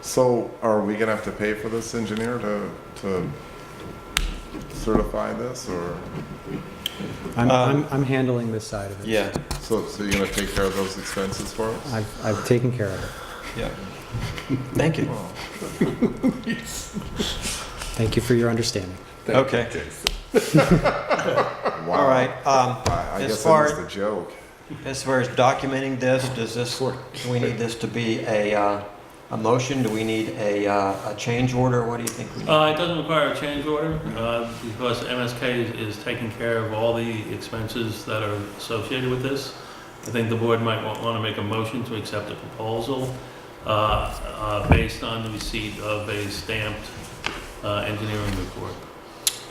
So are we gonna have to pay for this engineer to, to certify this or, I'm, I'm, I'm handling this side of it. Uh, Yeah, so, so you're gonna take care of those expenses for us? I've, I've taken care of it. yeah. Thank you. Oh, Thank you for your understanding. Okay, Wow. all right. Um, I, I As guess that far- was the joke. As far as documenting this, does this, do we need this to be a, uh, a motion? Do we need a, uh, a change order? What do you think? we need? Uh, it doesn't require a change order, uh, because MSK is, is taking care of all the expenses that are associated with this. I think the board might want, want to make a motion to accept the proposal, uh, uh, based on the receipt of a stamped, uh, engineering report.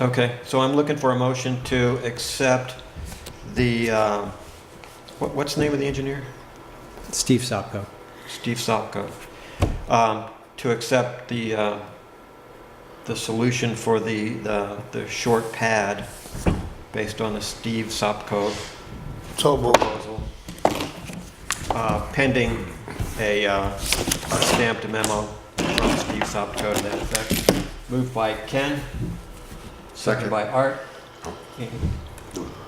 Okay, so I'm looking for a motion to accept the, um, what, what's the name of the engineer? Steve Sopko. Steve Salko. Um, to accept the, uh, the solution for the, the, the short pad based on the Steve Sopko proposal. Uh, pending a, uh, a stamped memo from Steve Sopko to that effect. Moved by Ken, seconded by Art. Oh.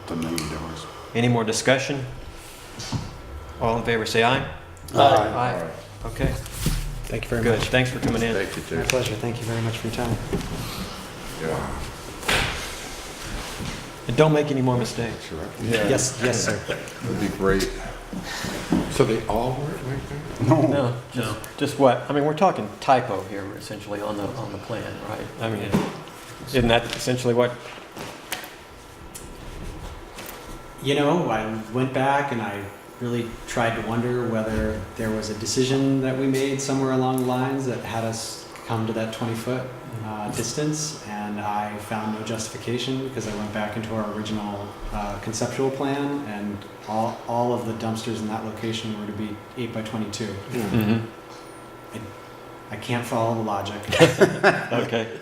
The main doors. Any more discussion? All in favor, say aye. Aye. Okay, Thank you very good. much. Thanks for coming in. Thank you, My Dave. pleasure. Thank you very much for your time. Yeah. And don't make any more mistakes. Yes, yes, sir. That'd be great. So they all were right there? No, No. just, just what, I mean, we're talking typo here essentially on the, on the plan, right? I mean, isn't that essentially what, You know, I went back and I really tried to wonder whether there was a decision that we made somewhere along the lines that had us come to that 20 foot uh, distance. And I found no justification because I went back into our original uh, conceptual plan and all, all of the dumpsters in that location were to be 8 by 22. Mm-hmm. I can't follow the logic. okay,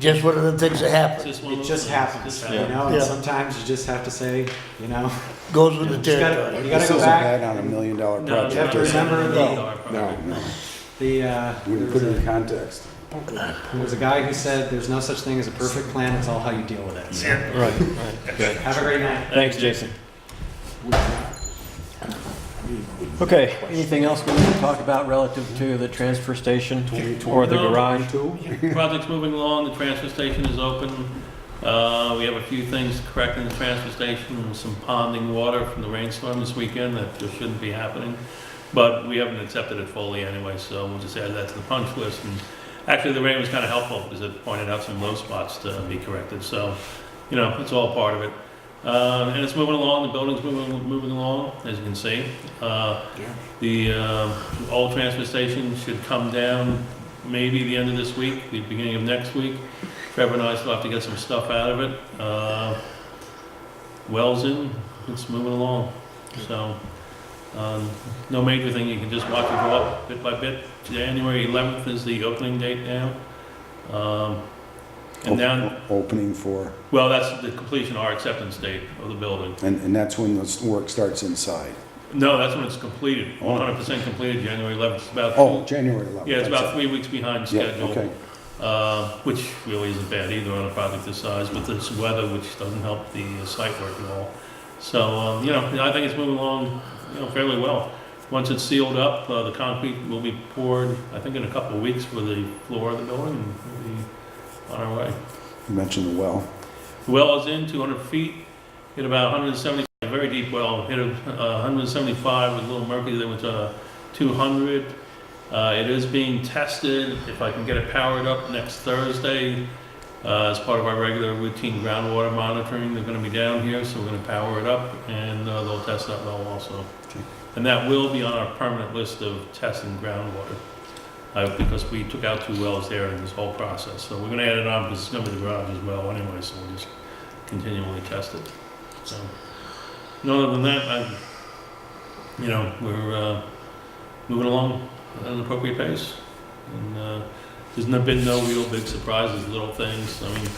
Just one of the things that happens, Just one of It those just things. happens, Just you happens. know, and Yeah. sometimes you just have to say, you know, goes with the you just territory. gotta, you gotta This go isn't back. bad on a million dollar No, You have project. to is it? remember no, no, No, no. The, uh, When you there was put it in a, context. there was a guy who said, there's no such thing as a perfect plan, it's all how you deal with it. So, right, right, good. Have a great night. Thanks, Jason. Okay, anything else we need to talk about relative to the transfer station or the No. garage? Project's moving along, the transfer station is open. Uh, We have a few things to correct in the transfer station, some ponding water from the rainstorm this weekend that just shouldn't be happening. But we haven't accepted it fully anyway, so we'll just add that to the punch list. And Actually, the rain was kind of helpful because it pointed out some low spots to be corrected, so, you know, it's all part of it. Uh, And it's moving along, the building's moving, moving along, as you can see. Uh, The uh, old transfer station should come down maybe the end of this week, the beginning of next week. Trevor and I still have to get some stuff out of it. Uh, Wells in, it's moving along. So, um, no major thing, you can just watch it go up bit by bit. January 11th is the opening date now. Um, And then, Opening for, well, that's the completion, our acceptance date of the building. and, and that's when the work starts inside. No, that's when it's completed, Oh. 100% completed, January 11th. It's about Oh, January 11th. Yeah, it's that's about it. three weeks behind Yeah, okay. schedule, uh, which really isn't bad either on a project this size, but this weather, which doesn't help the uh, site work at all. So, um, you know, I think it's moving along, you know, fairly well. Once it's sealed up, uh, the concrete will be poured, I think in a couple of weeks for the floor of the building, and we'll be on our way. You mentioned the well. The well is in, 200 feet, hit about 170, a very deep well, hit a uh, 175 with a little mercury, They went to 200. Uh, It is being tested, if I can get it powered up next Thursday, uh, as part of our regular routine groundwater monitoring, they're gonna be down here, so we're gonna power it up, and uh, they'll test that well also. And that will be on our permanent list of testing groundwater, uh, because we took out two wells there in this whole process. So we're gonna add it on, because it's gonna be the garage as well anyway, so we'll just continually test it. So, and other than that, I, you know, we're uh, moving along at an appropriate pace. And uh, there's not been no real big surprises, little things, I mean,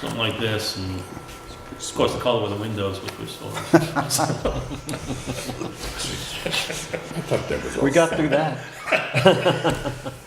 something like this, and of course, the color of the windows, which we saw. I thought that was We got through that.